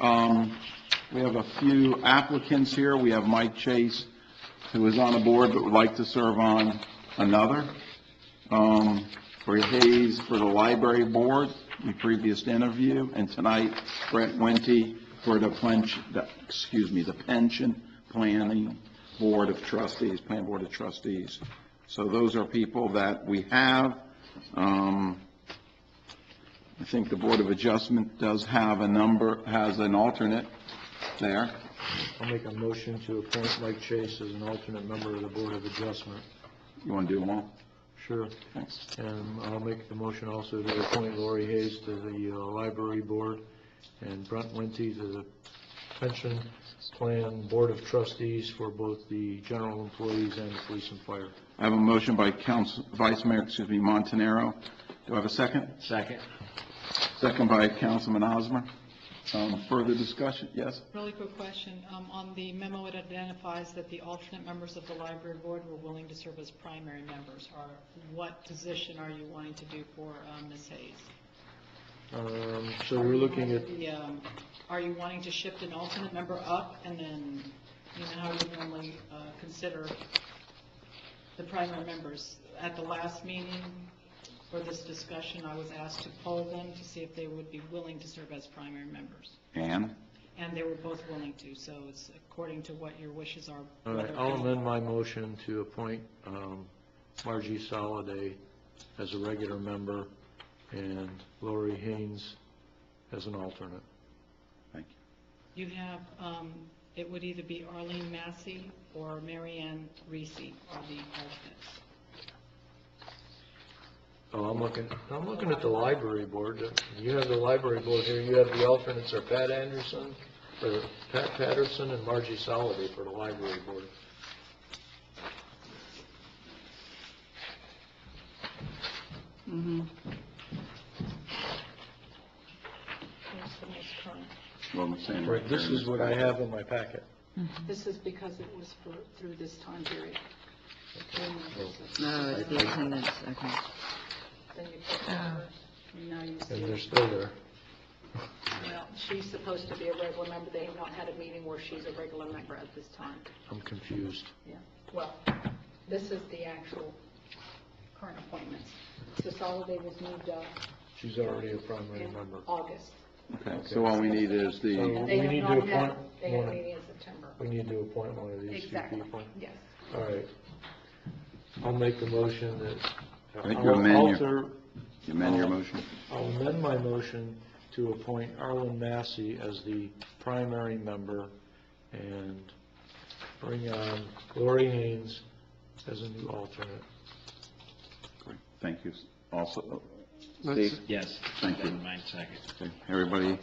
Um, We have a few applicants here. We have Mike Chase, who is on a board but would like to serve on another. Um, Corey Hayes for the library board, the previous interview, and tonight Brett Wente for the pension, the- excuse me, the pension planning board of trustees, plan board of trustees. So those are people that we have. Um, I think the Board of Adjustment does have a number, has an alternate there. I'll make a motion to appoint Mike Chase as an alternate member of the Board of Adjustment. You want to do them all? Sure. Thanks. And I'll make the motion also to appoint Lori Hayes to the uh, Library Board and Brent Winty to the Pension Plan Board of Trustees for both the general employees and the police and fire. I have a motion by Council, Vice Mayor, excuse me, Montanaro. Do I have a second? Second. Second by Councilman Osmer. Um, Further discussion? Yes? Really quick question. Um, On the memo, it identifies that the alternate members of the library board were willing to serve as primary members. Are, what position are you wanting to do for um, Ms. Hayes? Um, so we're looking at, The, um, Are you wanting to shift an alternate member up and then, you know, how you normally uh, consider the primary members? At the last meeting for this discussion, I was asked to poll them to see if they would be willing to serve as primary members. Ann? And they were both willing to, so it's according to what your wishes are. all right, uh, I'll amend my motion to appoint, um, Margie Soliday as a regular member and Lori Haynes as an alternate. Thank you. You have, um, it would either be Arlene Massey or Mary Ann Reese are the alternates. Oh, I'm looking, I'm looking at the library board. You have the library board here, you have the alternates are Pat Anderson, or Pat Patterson and Margie Soliday for the library board. Here's the most current. Well, I'm saying- Right, this is what I have in my packet. This is because it was for, through this time period. No, it's the attendance, okay. Then you put her, and now you And see, they're still there. well, she's supposed to be a regular member, they have not had a meeting where she's a regular member at this time. I'm confused. Yeah, well, this is the actual current appointments. So Soliday was moved up She's already a primary in member. August. Okay, so all we need is the, So- And they We need have to not had, appoint they had a one. meeting in September. We need to appoint one of these two Exactly, people. yes. All right. I'll make the motion that. I think you amend your- Alter- you amend your motion? I'll amend my motion to appoint Arlen Massey as the primary member and bring on Lori Haynes as a new alternate. Great. Thank you. Also, uh, Let's- Steve? Yes. Thank you. Nine seconds. Okay, Everybody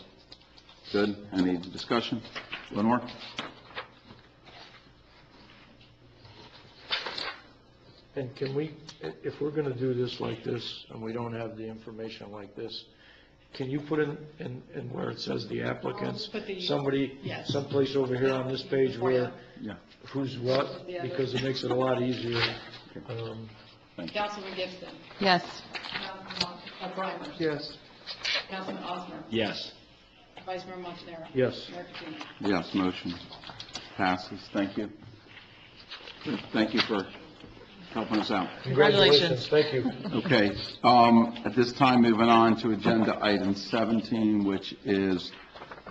good? Any discussion? Lenore? And can we, i- if we're going to do this like this, and we don't have the information like this, can you put in, in, in where it says the applicants? I'll put the- Somebody, yes. someplace over here on this page where, Yeah. who's what, The other. because it makes it a lot easier. Um, Councilman Gibson. Yes, Councilman Breimer. Yes. Councilman Osmer. Yes. Vice Mayor Montanaro. Yes. Mayor Patino. Yes, motion passes. Thank you. Thank you for helping us out. Congratulations. Thank you. Okay, um, at this time, moving on to agenda item 17, which is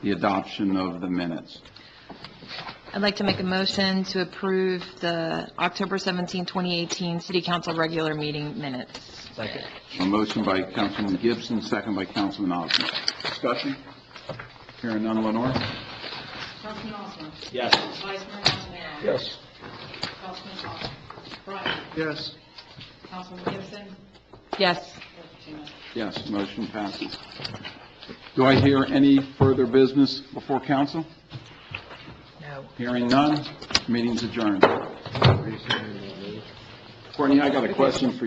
the adoption of the minutes. I'd like to make a motion to approve the October 17, 2018 City Council regular meeting minutes. Second. A motion by Councilman Gibson, second by Councilman Osmer. Discussion? Hearing none, Lenore? Councilman Osmer. Yes. Vice Mayor Montanaro. Yes. Councilman Osmer. Breimer. Yes. Councilman Gibson. Yes, Mayor Patino. Yes, motion passes. Do I hear any further business before council? no. Hearing none, meeting's adjourned. Courtney, I got a question for you.